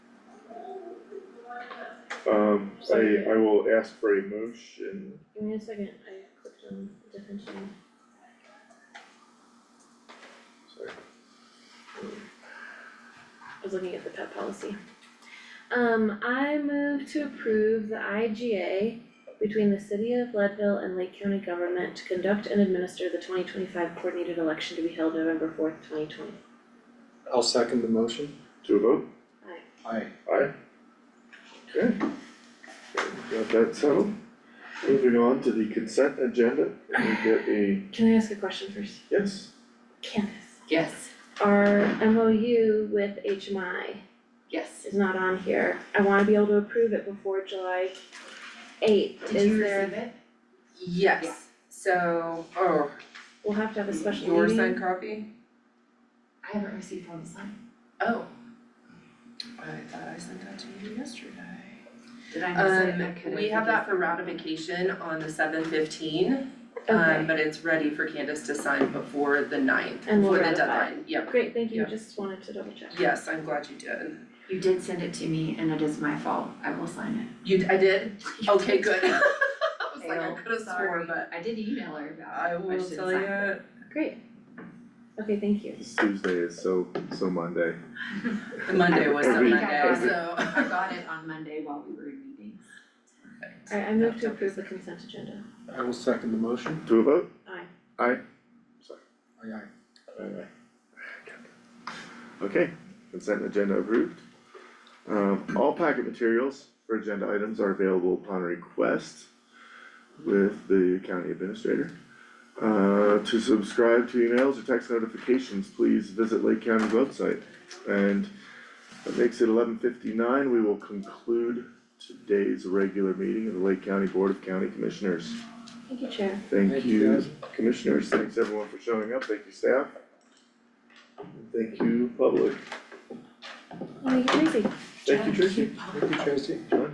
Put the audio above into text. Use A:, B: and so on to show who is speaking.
A: Um, I, I will ask for a motion,
B: Give me a second, I clicked on a different channel.
A: sorry.
B: I was looking at the pet policy. Um, I move to approve the IGA between the city of Leadville and Lake County government to conduct and administer the twenty twenty-five coordinated election to be held November fourth, twenty twenty.
C: I'll second the motion.
A: To a vote,
C: Aye.
A: aye? Okay. Got that settled. Moving on to the consent agenda, can we get a,
B: Can I ask a question first?
A: yes,
B: Candace,
D: Yes,
B: our MOU with HMI
D: yes.
B: is not on here. I wanna be able to approve it before July eighth. Is there,
D: it? Yeah.
E: Yes, so, oh,
B: we'll have to have a special meeting.
E: your signed copy?
D: I haven't received one sign.
E: Oh. I thought I sent that to you yesterday.
D: Did I miss it? I
E: Um,
D: could've-
E: we have that for ratification on the seven fifteen, um,
B: Okay,
E: but it's ready for Candace to sign before the ninth,
B: And we'll
E: before the
B: ratify.
E: deadline, yep.
B: great, thank you,
E: Yeah.
B: just wanted to double check.
E: Yes, I'm glad you did.
D: You did send it to me and it is my fault. I will sign
E: You, d- I did?
D: it.
E: Okay, good. I was like, I
D: Fail.
E: could have sworn,
D: Sorry.
E: but
D: I did email her about it.
E: I will
D: should've
E: tell
D: signed
E: you,
B: Great. Okay, thank you.
F: This Tuesday is so, so Monday.
E: the Monday was the
A: Every-
E: Monday,
D: every-
E: so.
D: I got it on Monday while we were in meetings.
B: Alright, I move to approve the consent agenda.
C: I will second the motion.
A: to a vote?
B: Aye.
C: Aye aye.
A: Aye, aye. Okay, consent agenda approved. Um, all packet materials for agenda items are available upon request with the county administrator. Uh, to subscribe to emails or text notifications, please visit Lake County's website. And that makes it eleven fifty-nine, we will conclude today's regular meeting of the Lake County Board of County Commissioners.
B: Thank you, Chair.
A: Thank
C: Thank you,
A: you,
C: guys.
A: commissioners, thanks everyone for showing up, thank you staff. And Thank you, public,
B: I'll make it easy.
A: thank you, Tracy.
C: Thank you, Tracy.